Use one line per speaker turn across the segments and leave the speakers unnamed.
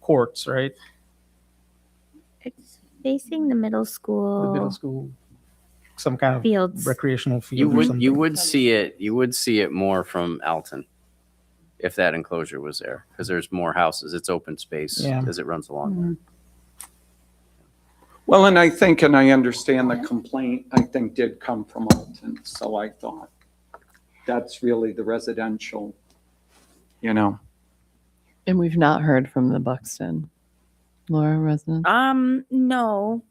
courts, right?
It's facing the middle school,
The middle school, some kind of
Oh. fields.
recreational field.
You
or
would
something.
you would see it you would see it more from Alton if that enclosure was there because there's more houses. It's open space
Yeah.
as it runs along. there.
Well, and I think, and I understand the complaint, I think did come from Alton, so I thought that's really the residential, you know.
And we've not heard from the Buxton Laura resident.
Um, no,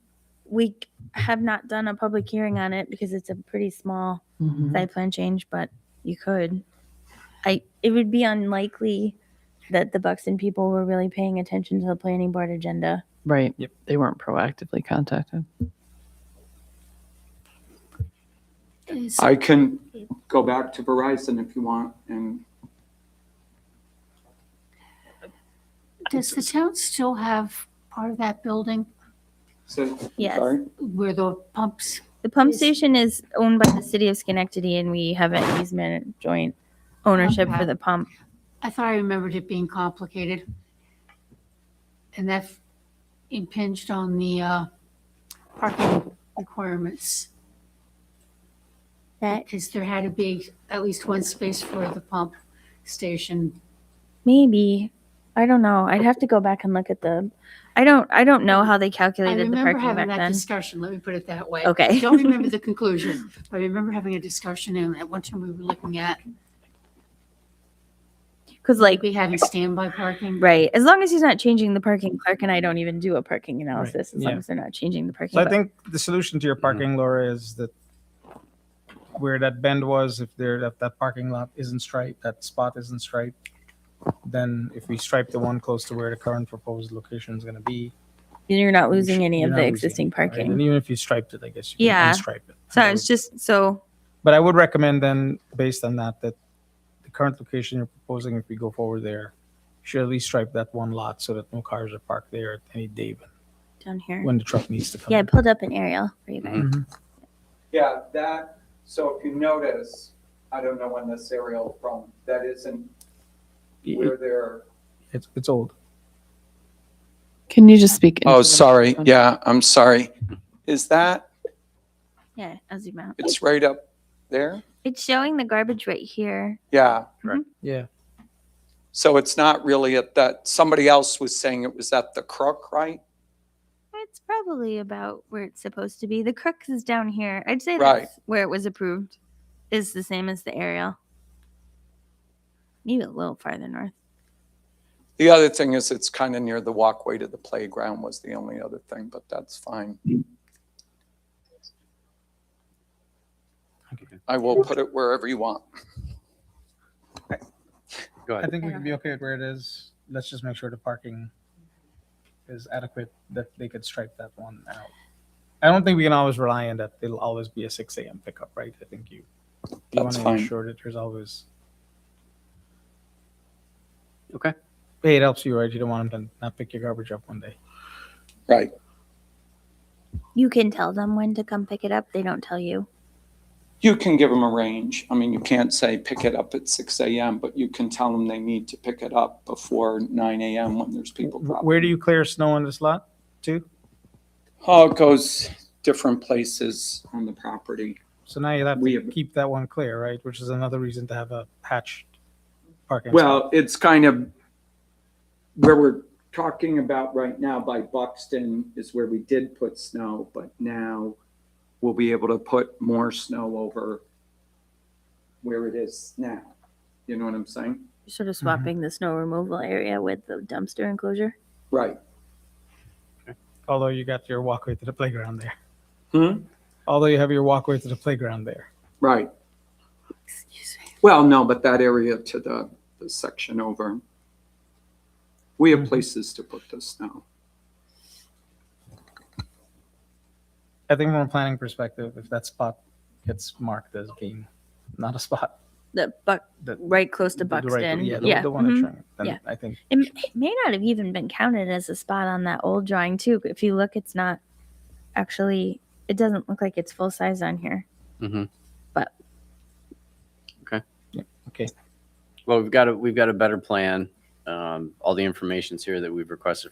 we have not done a public hearing on it because it's a pretty small
Mhm.
site plan change, but you could. I, it would be unlikely that the Buxton people were really paying attention to the planning board agenda.
Right.
Yep.
They weren't proactively contacted.
I can go back to Verizon if you want, and
Does the town still have part of that building
so,
Yes.
sorry.
where the pumps?
The pump
Is-
station is owned by the city of Schenectady and we have an easement joint ownership for
Okay.
the pump.
I thought I remembered it being complicated. And that impinged on the uh, parking requirements,
That
because there had to be at least one space for the pump station.
maybe, I don't know. I'd have to go back and look at the, I don't, I don't know how they
I
calculated the
remember
parking
having
back
that
then.
discussion, let me put it that way.
Okay.
Don't remember the conclusion, but I remember having a discussion, and at one time we were looking at
Cause like,
maybe having standby parking.
Right. As long as he's not changing the parking, Clark and I don't even do a parking analysis as
yeah.
long as they're not changing the parking.
So I
but-
think the solution to
Mm.
your parking, Laura, is that where that bend was, if there, if that parking lot isn't striped, that spot isn't striped, then if we stripe the one close to where the current proposed location is gonna be.
you're not
we
losing
should-
any
you're
of
not
the
losing
existing
it, right?
parking.
And even if you striped it, I guess you
Yeah.
can unstripe it.
So
I
it's
would-
just so
But I would recommend then, based on that, that the current location you're proposing, if we go forward there, should at least stripe that one lot so that no cars are parked there at any day
down here.
when the truck needs to come. Mm-hmm.
Yeah, I
in.
pulled up an aerial for you guys.
Mhm.
Yeah, that, so if you notice, I don't know when the serial from, that isn't where they're.
It's, it's old.
Can you just speak? into
Oh,
the
sorry,
microphone?
yeah, I'm sorry. Is that,
Mm-hmm.
Yeah, I'll zoom out.
it's right up there?
It's showing the garbage right here.
Yeah,
Yeah.
so it's not really at that, somebody else was saying it was at the crook, right?
It's probably about where it's supposed to be. The crooks is down here. I'd say
Right.
that's where it was approved. Is the same as the aerial. Maybe a little farther north.
The other thing is it's kind of near the walkway to the playground was the only other thing, but that's fine. I will put it wherever you want.
Go
I
ahead.
think we can be okay with where it is. Let's just make sure the parking is adequate, that they could stripe that one out. I don't think we can always rely on that. It'll always be a six AM pickup, right? I think you, you want
That's
to
fine.
ensure that there's always,
Okay.
hey, it helps you, right? You don't want them to not pick your garbage up one day.
Right.
You can tell them when to come pick it up. They don't tell you.
You can give them a range. I mean, you can't say pick it up at six AM, but you can tell them they need to pick it up before nine AM when there's people
W-
dropping.
Where do you clear snow on this lot too?
Oh, it goes different places on the property.
So now you'll have
We
to
have-
keep that one clear, right? Which is another reason to have a hatched parking. spot.
Well, it's kind of where we're talking about right now by Buxton is where we did put snow, but now we'll be able to put more snow over where it is now. You know what I'm saying?
You're sort of
Mm-hmm.
swapping the snow removal area with the dumpster enclosure.
Right.
Although you got your walkway to the playground there.
Hmm?
Although you have your walkway to the playground there.
Right. Well, no, but that area to the, the section over. We have places to put the snow.
I think from a planning perspective, if that spot gets marked as being not a spot,
The buck
The-
right close to
the- the right-
Buxton.
yeah,
yeah,
the, the one
mhm.
that's showing, then
Yeah.
I think
It m- it may not have even been counted as a spot on that old drawing too. If you look, it's not actually. It doesn't look like it's full size on here.
Well, we've got a we've got a better plan. Um, all the information's here that we've requested